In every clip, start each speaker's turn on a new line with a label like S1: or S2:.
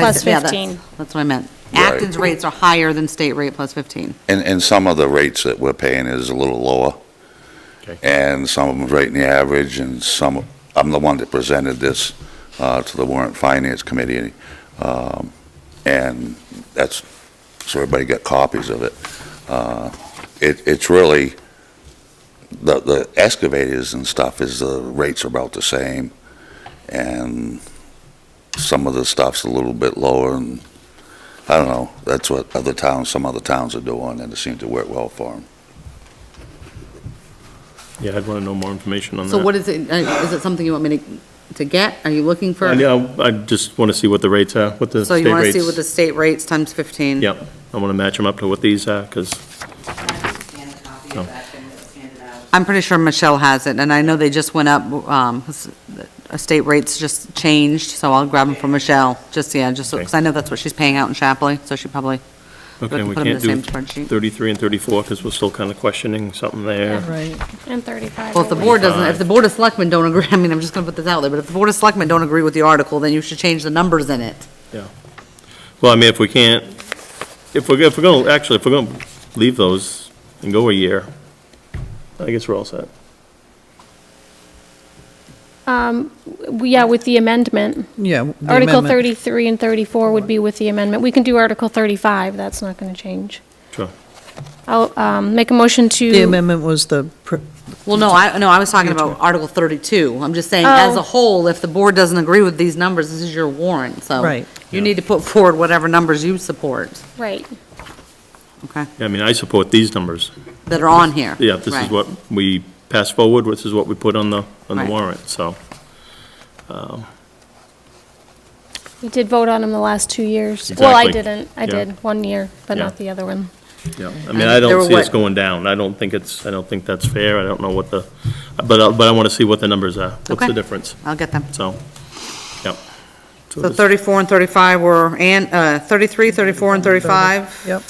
S1: Plus
S2: Yeah, that's-
S1: 15.
S2: That's what I meant.
S3: Right.
S2: Acton's rates are higher than state rate plus 15.
S3: And, and some of the rates that we're paying is a little lower.
S4: Okay.
S3: And some of them right in the average, and some, I'm the one that presented this uh, to the warrant finance committee. um, And that's, so everybody got copies of it. Uh, It, it's really, the, the excavators and stuff is, the rates are about the same. And some of the stuff's a little bit lower, and I don't know, that's what other towns, some other towns are doing, and it seemed to work well for them.
S4: Yeah, I'd want to know more information on that.
S2: So what is it, uh, is it something you want me to, to get? Are you looking for?
S4: I know, I just want to see what the rates are, what the
S2: So
S4: state rates.
S2: you want to see what the state rates times 15?
S4: Yep, I want to match them up to what these are, because, of No.
S2: I'm pretty sure Michelle has it, and I know they just went up, um, s- uh, state rates just changed, so I'll grab them from Michelle, just, yeah, just, because I know that's what she's paying out in Chapley, so she probably, have
S4: okay,
S2: to
S4: we
S2: put 'em in
S4: can't
S2: the
S4: do
S2: same spreadsheet.
S4: 33 and 34, because we're still kind of questioning something there.
S5: Right.
S1: And 35.
S2: well, if the
S1: I
S2: board doesn't,
S4: Twenty-five.
S2: if the Board of Selectmen don't agree, I mean, I'm just going to put this out there, but if the Board of Selectmen don't agree with the article, then you should change the numbers in it.
S4: Well, I mean, if we can't, if we're, if we're going to, actually, if we're going to leave those and go a year, I guess we're all set.
S1: think. Um, Yeah, with the amendment.
S5: Yeah. the
S1: Article
S5: amendment.
S1: 33 and 34 would be with the amendment. We can do Article 35, that's not going to change.
S4: Sure.
S1: I'll um, make a motion to.
S5: The amendment was the, pr-
S2: Well, no, I, no, I was talking about Article 32. I'm just saying, as
S1: Oh.
S2: a whole, if the board doesn't agree with these numbers, this is your warrant, so.
S5: Right.
S2: You need to put forward whatever numbers you support,
S1: Right.
S2: okay,
S4: Yeah, I mean, I support these numbers.
S2: that are on here.
S4: Yeah, this
S2: Right.
S4: is what we pass forward, this is what we put on the, on the
S2: Right.
S4: warrant, so.
S1: We did vote on them the last two years. Well, I
S4: Exactly.
S1: didn't. I
S4: Yeah.
S1: did, one year, but
S4: Yeah.
S1: not the other one.
S4: Yeah, I mean, I
S2: there were
S4: don't see us
S2: what-
S4: going down. I don't think it's, I don't think that's fair. I don't know what the, but, I- but I want to see what the numbers are. What's the
S2: Okay.
S4: difference?
S2: I'll get them.
S4: So, yep. So
S2: So
S4: this-
S2: 34 and 35 were, and, uh, 33, 34, and 35?
S5: yep.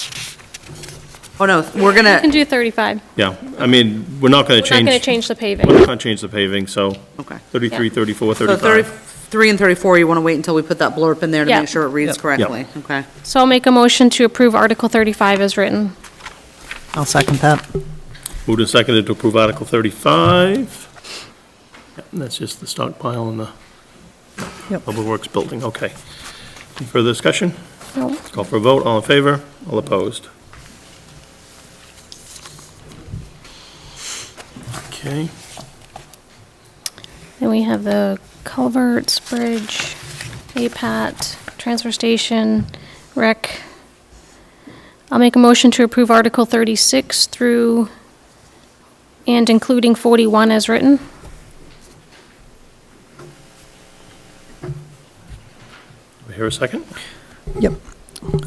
S2: Oh, no, we're
S5: Uh,
S1: We can
S2: gonna,
S1: do 35.
S4: Yeah, I mean, we're not
S1: We're
S4: going to
S1: not
S4: change.
S1: going to change the paving.
S4: We're not going to change the paving, so
S2: okay.
S4: 33,
S1: Yeah.
S4: 34,
S2: So
S4: 35.
S2: 33 and 34, you wanna wait until we put that blurb in there to
S1: Yeah.
S2: make sure it reads
S5: Yeah.
S2: correctly, okay?
S1: So I'll make a motion to approve Article 35 as written.
S5: I'll second that.
S4: Moved and seconded to approve Article 35. Yep, and That's just the stockpile in the
S5: Yep.
S4: Public Works Building, okay. Any Further discussion?
S1: No.
S4: Let's call for a vote. All in favor? All opposed? Okay.
S1: Then we have the culverts, bridge, APAT, transfer station, rec. I'll make a motion to approve Article 36 through and including 41 as written.
S4: Do we hear a second?
S5: Yep.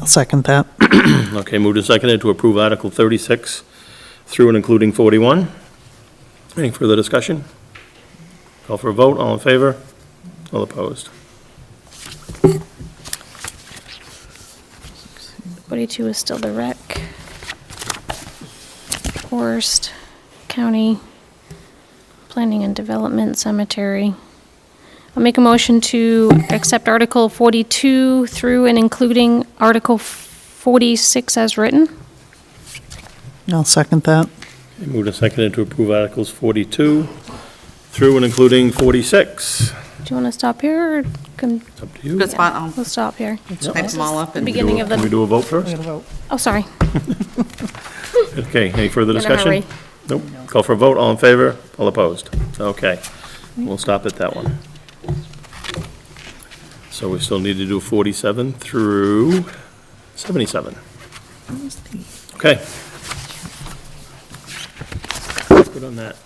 S5: I'll second that.
S4: Okay, moved and seconded to approve Article 36 through and including 41. Any further discussion? Call for a vote, all in favor, all opposed.
S1: 42 is still the rec. Forest, county, planning and development, cemetery. I'll make a motion to accept Article 42 through and including Article 46 as written.
S5: I'll second that.
S4: Okay, Moved and seconded to approve Articles 42 through and including 46.
S1: Do you want to stop here, or can,
S4: It's up to you.
S2: Good spot, I'll
S1: we'll stop here?
S2: type them all up and.
S1: Begin- Beginning of the-
S4: Can we do a vote first?
S1: Oh, sorry.
S4: Okay, any further
S1: In a
S4: discussion?
S1: hurry.
S4: Nope. Call for a vote, all in favor, all opposed. Okay, we'll stop at that one. So we still need to do 47 through 77. Okay. Good on that.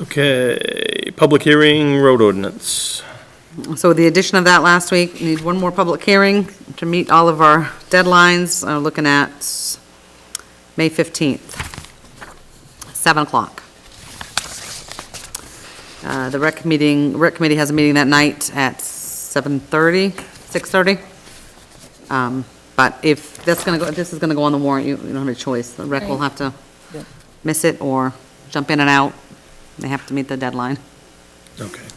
S4: Okay, public hearing, road ordinance.
S2: So with the addition of that last week, we need one more public hearing to meet all of our deadlines, uh, looking at May 15th, 7 o'clock. Uh, The rec meeting, rec committee has a meeting that night at 7:30, 6:30. Um, But if that's going to go, if this is going to go on the warrant, you you don't have a choice. The rec will
S1: Right.
S2: have to miss it or jump in and out. They have to meet the deadline.
S4: Okay.